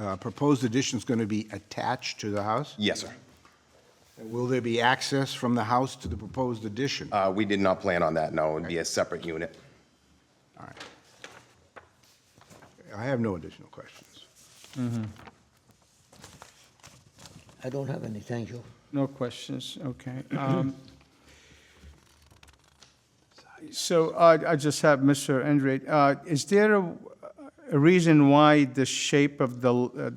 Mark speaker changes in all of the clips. Speaker 1: uh, proposed addition's going to be attached to the house?
Speaker 2: Yes, sir.
Speaker 1: Will there be access from the house to the proposed addition?
Speaker 2: Uh, We did not plan on that, no. It'd be a separate unit.
Speaker 1: All right. I have no additional questions.
Speaker 3: I don't have any, thank you.
Speaker 4: No questions, okay. Um, So I I just have, Mr. Andre, uh, is there a a reason why the shape of the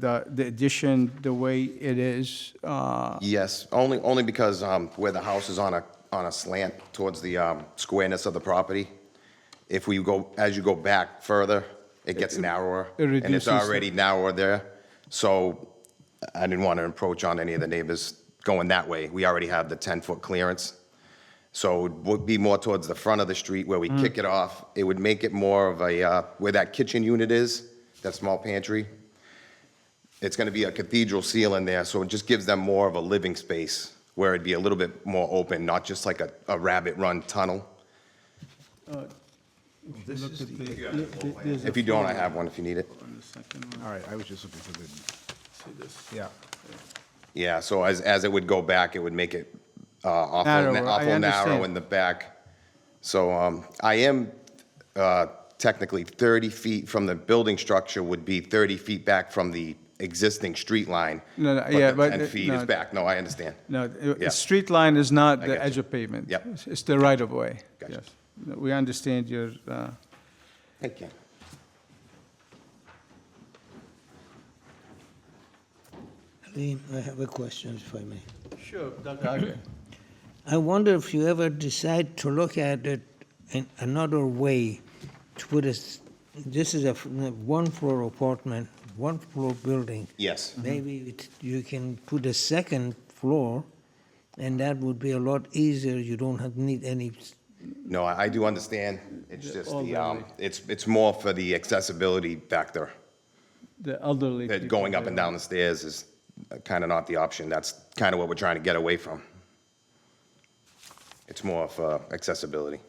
Speaker 4: the the addition, the way it is? uh,
Speaker 2: Yes, only, only because um, where the house is on a, on a slant towards the um, squareness of the property, if we go, as you go back further, it gets narrower.
Speaker 4: it
Speaker 2: And
Speaker 4: reduces
Speaker 2: it's
Speaker 4: the-
Speaker 2: already narrower there, so I didn't want to encroach on any of the neighbors going that way. We already have the 10-foot clearance, so it would be more towards the front of the street where we
Speaker 4: Mm.
Speaker 2: kick it off. It would make it more of a, uh, where that kitchen unit is, that small pantry, it's going to be a cathedral seal in there, so it just gives them more of a living space where it'd be a little bit more open, not just like a, a rabbit run tunnel. If you don't, I have one if you need it.
Speaker 1: All right, I was just looking for the. See this? Yeah.
Speaker 2: Yeah, so as, as it would go back, it would make it uh, awful,
Speaker 4: Narrower,
Speaker 2: na-
Speaker 4: I
Speaker 2: awful narrow
Speaker 4: understand.
Speaker 2: in the back. So um, I am uh, technically 30 feet from the building structure would be 30 feet back from the existing street line.
Speaker 4: No, no, yeah,
Speaker 2: the
Speaker 4: but
Speaker 2: 10
Speaker 4: it-
Speaker 2: feet is
Speaker 4: no.
Speaker 2: back, no, I understand.
Speaker 4: No, uh, the
Speaker 2: Yeah.
Speaker 4: the street line is not the
Speaker 2: get
Speaker 4: edge
Speaker 2: you.
Speaker 4: of pavement.
Speaker 2: Yep.
Speaker 4: It's- It's the right-of-way.
Speaker 2: Gotcha.
Speaker 4: Yes. No, We understand your, uh,
Speaker 2: Thank you.
Speaker 3: Lee, I have a question, if I may.
Speaker 4: Sure, Dr. Agri.
Speaker 3: I wonder if you ever decide to look at it in another way, to put a, s- this is a f- one-floor apartment, one-floor building.
Speaker 2: Yes.
Speaker 3: Maybe it- you can put a second floor, and that would be a lot easier, you don't have, need any s-
Speaker 2: No, I I do understand. It's just
Speaker 4: all
Speaker 2: the,
Speaker 4: the
Speaker 2: um,
Speaker 4: way.
Speaker 2: it's, it's more for the accessibility factor.
Speaker 4: The elderly.
Speaker 2: That
Speaker 4: people
Speaker 2: going up
Speaker 4: there.
Speaker 2: and down the stairs is kind of not the option. That's kind of what we're trying to get away from. It's more for accessibility.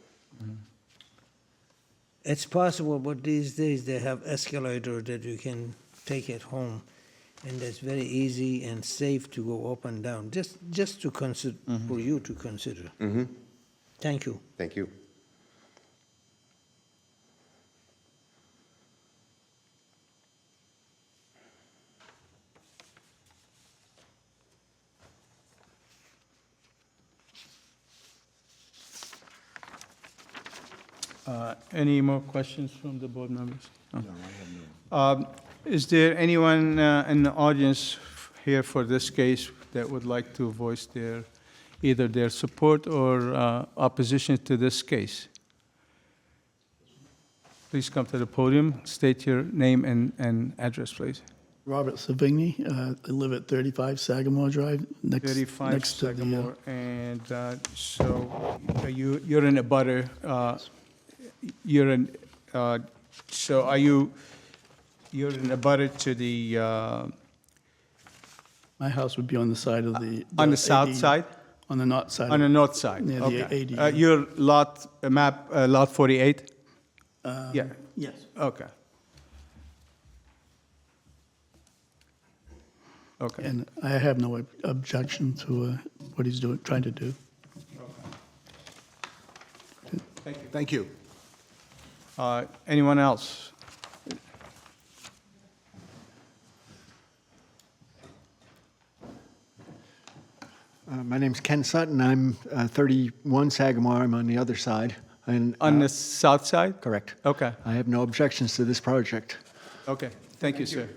Speaker 3: It's possible, but these days they have escalator that you can take at home, and that's very easy and safe to go up and down. Just, just to consider for you to consider. Mm-hmm. Thank you.
Speaker 2: Thank you.
Speaker 4: Uh, Any more questions from the board members? No, I have none. Is there anyone uh, in the audience f- here for this case that would like to voice their, either their support or uh, opposition to this case? Please come to the podium, state your name and, and address, please.
Speaker 5: Robert Savigny. Uh, I live at 35 Sagamore Drive, next,
Speaker 4: 35
Speaker 5: next to the, uh,
Speaker 4: Sagamore, and uh, so are you, you're in a butter, uh, you're in, uh, so are you, you're in a butter to the, uh,
Speaker 5: my house would be on the side of the.
Speaker 4: Uh, on the south
Speaker 5: AD
Speaker 4: side?
Speaker 5: On the north side.
Speaker 4: On the north side?
Speaker 5: Near the
Speaker 4: Okay.
Speaker 5: AD.
Speaker 4: Uh, Your lot, uh, map, uh, lot 48?
Speaker 5: Uh,
Speaker 4: Yeah,
Speaker 5: Yes.
Speaker 4: okay. Okay.
Speaker 5: And I have no ob- objection to uh, what he's doing, trying to do.
Speaker 1: Thank you.
Speaker 4: Uh, Anyone else?
Speaker 6: Uh, My name's Ken Sutton. I'm uh, 31 Sagamore. I'm on the other side. And
Speaker 4: On Oh.
Speaker 6: uh,
Speaker 4: the south side?
Speaker 6: correct.
Speaker 4: Okay,
Speaker 6: I have no objections to this project.
Speaker 4: okay. Thank you, sir.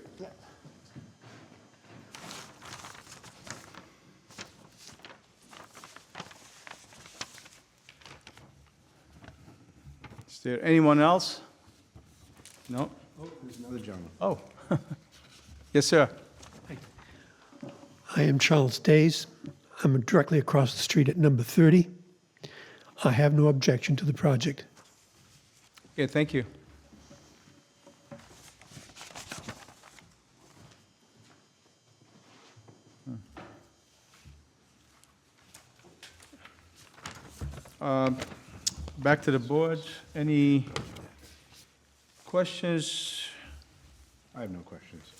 Speaker 4: Is there anyone else? No?
Speaker 1: There's another gentleman.
Speaker 4: Oh. Yes, sir.
Speaker 7: I am Charles Days. I'm directly across the street at number 30. I have no objection to the project.
Speaker 4: Yeah, thank you. Hmm. Um, Back to the board. Any questions?
Speaker 1: I have no questions.